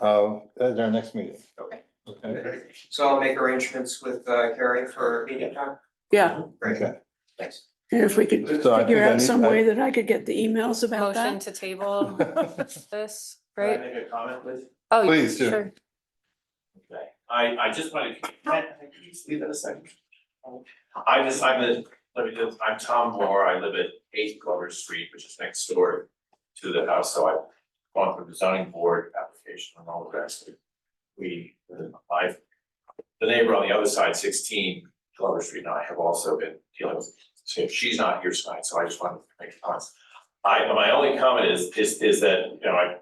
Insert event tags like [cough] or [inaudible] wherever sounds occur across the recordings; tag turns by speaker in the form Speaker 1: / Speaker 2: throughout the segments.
Speaker 1: uh, at our next meeting.
Speaker 2: Okay.
Speaker 1: Okay.
Speaker 2: So I'll make arrangements with uh, Carrie for meeting time.
Speaker 3: Yeah,
Speaker 2: Great,
Speaker 1: Okay.
Speaker 2: thanks.
Speaker 3: and if we could
Speaker 1: So I think
Speaker 3: figure
Speaker 1: I
Speaker 3: out
Speaker 1: need-
Speaker 3: some
Speaker 1: I-
Speaker 3: way that I could get the emails about
Speaker 4: Motion
Speaker 3: that. [laughs]
Speaker 4: to table this,
Speaker 2: Can I
Speaker 4: right?
Speaker 2: Make a comment, please?
Speaker 4: Oh,
Speaker 1: Please do.
Speaker 4: sure.
Speaker 2: Okay, I, I just wanted, to- can I- could you just leave that a second? I just, I'm a, let me just, I'm Tom Moore, I live at eight Glover Street, which is next door to the house, so I've gone through the zoning board application and all the rest. We, I've, the neighbor on the other side, sixteen Glover Street, and I have also been dealing with, so she's not here tonight, so I just wanted to make comments. I, my only comment is, is, is that, you know, I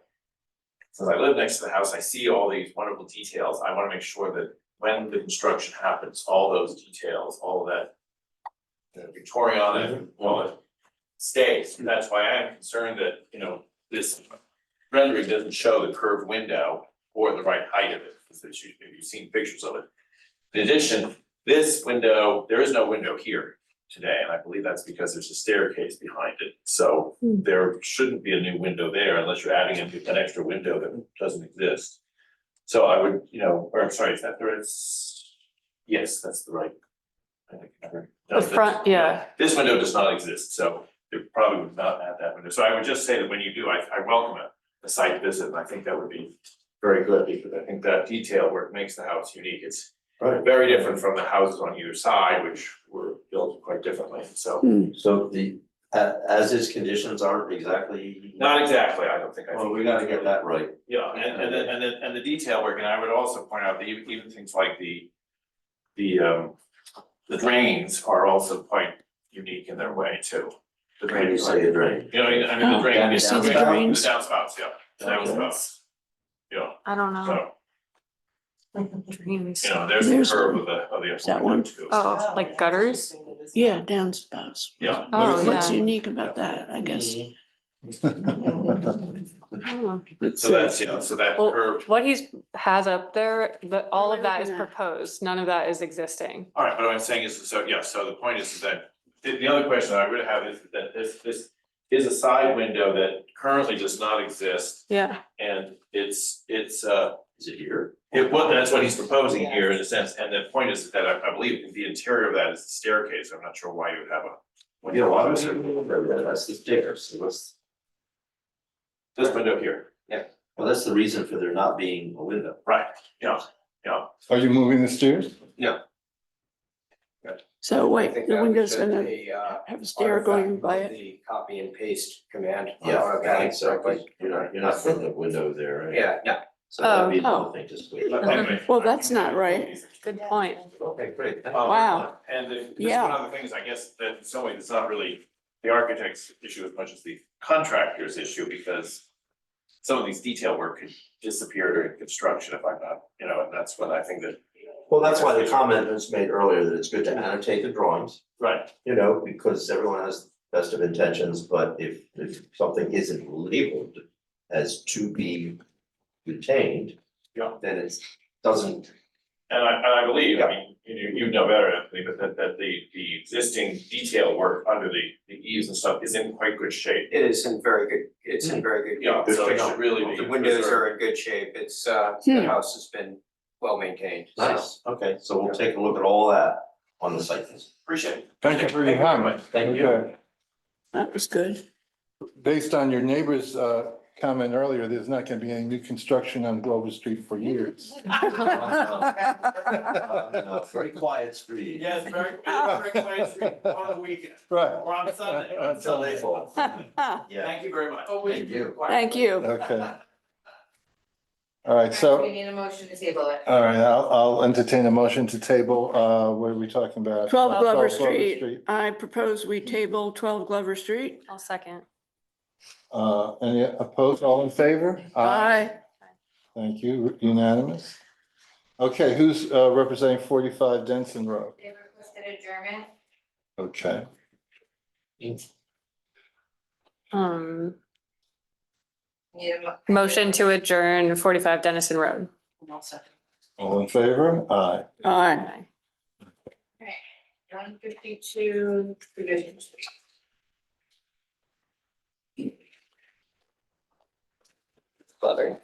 Speaker 2: since I live next to the house, I see all these wonderful details, I wanna make sure that when the construction happens, all those details, all of that. The Victorian, and all it stays, And that's why I'm concerned that, you know, this rendering doesn't show the curved window. Or the right height of it, because it's usually- you've seen pictures of it. In addition, this window, there is no window here today, and I believe that's because there's a staircase behind it, so
Speaker 4: Hmm.
Speaker 2: there shouldn't be a new window there unless you're adding an an extra window that doesn't exist. So I would, you know, or I'm sorry, is that the right? s- Yes, that's the right. I think I heard- no,
Speaker 4: The
Speaker 2: this-
Speaker 4: front, yeah.
Speaker 2: This window does not exist, so it probably would not add that window. So I would just say that when you do, I I welcome a a site visit, and I think that would be very good because I think that detail where it makes the house unique, it's
Speaker 5: Right.
Speaker 2: very different from the houses on either side, which were built quite differently, so.
Speaker 5: So the, a- as is conditions aren't exactly.
Speaker 2: Not exactly, I don't think I.
Speaker 5: Well, we gotta get that right.
Speaker 2: Yeah, and and the and the and the detail work, and I would also point out that even even things like the. The um, the drains are also quite unique in their way too. The
Speaker 5: When you
Speaker 2: drains,
Speaker 5: say a drain.
Speaker 2: you know, I mean, the
Speaker 4: Oh,
Speaker 2: drain, the
Speaker 5: so the
Speaker 3: drains.
Speaker 2: downspouts, the downspouts, yeah, the downspouts. Yeah,
Speaker 4: I don't know.
Speaker 2: so,
Speaker 4: Dreams.
Speaker 2: you know, there's
Speaker 3: There's
Speaker 2: the curve of the of the.
Speaker 3: that
Speaker 2: upper
Speaker 3: one.
Speaker 2: window, too.
Speaker 4: Oh, like gutters?
Speaker 3: Yeah, downspouts.
Speaker 2: Yeah.
Speaker 4: Oh,
Speaker 3: What's
Speaker 4: yeah.
Speaker 3: unique about that, I guess?
Speaker 5: Mm-hmm.
Speaker 4: [laughs] Hmm.
Speaker 3: It's,
Speaker 2: So
Speaker 3: uh,
Speaker 2: that's, you know, so that
Speaker 4: Well,
Speaker 2: curve,
Speaker 4: What he's has up there, but all
Speaker 3: What
Speaker 4: of
Speaker 3: am I
Speaker 4: that is
Speaker 3: looking at?
Speaker 4: proposed. None of that is existing.
Speaker 2: all right, but what I'm saying is, so, yeah, so the point is that. The the other question I would have is that this this is a side window that currently does not exist.
Speaker 4: Yeah.
Speaker 2: And it's, it's, uh,
Speaker 5: Is it here?
Speaker 2: it, well, that's what he's proposing here in a sense, and the point is that I, I believe the interior of that is the staircase, I'm not sure why you would have a.
Speaker 5: Well, Yeah, well, that's, that's the stairs, so what's,
Speaker 2: This window here,
Speaker 5: well, that's the reason for there not being a window.
Speaker 2: right,
Speaker 1: Are you moving the stairs?
Speaker 3: So
Speaker 6: I
Speaker 3: wait,
Speaker 6: think
Speaker 3: the
Speaker 6: that we
Speaker 3: window's
Speaker 6: took
Speaker 3: gonna
Speaker 6: the, uh,
Speaker 3: have a stair going
Speaker 6: artifact
Speaker 3: by
Speaker 6: of
Speaker 3: it.
Speaker 6: The copy and paste command. Uh, on
Speaker 5: I
Speaker 6: automatic
Speaker 5: think so,
Speaker 6: correctly.
Speaker 5: but you're not, you're not putting a window there, right?
Speaker 6: Yeah, yeah,
Speaker 5: So that'd be the
Speaker 3: Oh.
Speaker 5: whole thing, just.
Speaker 2: But anyway.
Speaker 3: Well, that's not right.
Speaker 4: Good point.
Speaker 5: Okay, great.
Speaker 2: Um,
Speaker 3: Wow.
Speaker 2: And the, just
Speaker 3: Yeah.
Speaker 2: one other thing is, I guess, that in some ways, it's not really the architect's issue as much as the contractor's issue, because. Some of these detail work could disappear during construction if I'm not, you know, and that's what I think that.
Speaker 5: Well, that's why the comment was made earlier that it's good to annotate the drawings.
Speaker 2: Right,
Speaker 5: you know, because everyone has best of intentions, but if if something isn't labeled as to be retained.
Speaker 2: Yeah.
Speaker 5: Then it's doesn't,
Speaker 2: And I, and I believe, I mean, you, you know better, Anthony, but that, that the, the existing detail work under the, the eaves and stuff is in quite good shape.
Speaker 6: it is in very good, it's
Speaker 3: Mm-hmm.
Speaker 6: in very good.
Speaker 2: Yeah,
Speaker 6: shape.
Speaker 2: so it should really be.
Speaker 6: The windows
Speaker 2: preserved.
Speaker 6: are in good shape, it's, uh,
Speaker 3: Hmm.
Speaker 6: the house has been well maintained, so.
Speaker 5: nice, okay, so we'll take a look at all that on the site. visit.
Speaker 2: Appreciate it.
Speaker 1: Thank you for your comment.
Speaker 5: Thank you.
Speaker 1: Okay.
Speaker 3: That was good.
Speaker 1: Based on your neighbor's uh, comment earlier, there's not going to be any new construction on Glover Street for
Speaker 3: [laughs]
Speaker 1: years.
Speaker 5: Uh, Very quiet
Speaker 2: [laughs]
Speaker 5: street.
Speaker 2: Yes, very, very quiet street
Speaker 6: [laughs]
Speaker 2: on the weekend,
Speaker 1: [laughs] Right,
Speaker 2: or on Sunday, on Sunday.
Speaker 5: Yeah,
Speaker 2: you very much.
Speaker 5: thank you.
Speaker 4: Thank you.
Speaker 1: okay. All right,
Speaker 7: Alright,
Speaker 1: so,
Speaker 7: We need a motion to table it.
Speaker 1: all right, I'll, I'll entertain a motion to table, uh, what are we talking about? Uh,
Speaker 3: 12 Glover
Speaker 1: 12
Speaker 3: Street. I propose we table 12 Glover Street.
Speaker 4: I'll second.
Speaker 1: Uh, any opposed, all in favor?
Speaker 3: Aye.
Speaker 1: Thank you, unanimous. Okay, who's uh, representing forty-five Denson Road?
Speaker 7: They requested adjournment.
Speaker 1: Okay,
Speaker 4: Um,
Speaker 7: Need a mo-
Speaker 4: motion to adjourn forty-five Dennison Road.
Speaker 1: all in favor? Aye.
Speaker 3: Aye.
Speaker 7: One fifty-two, provisions.
Speaker 4: Glover.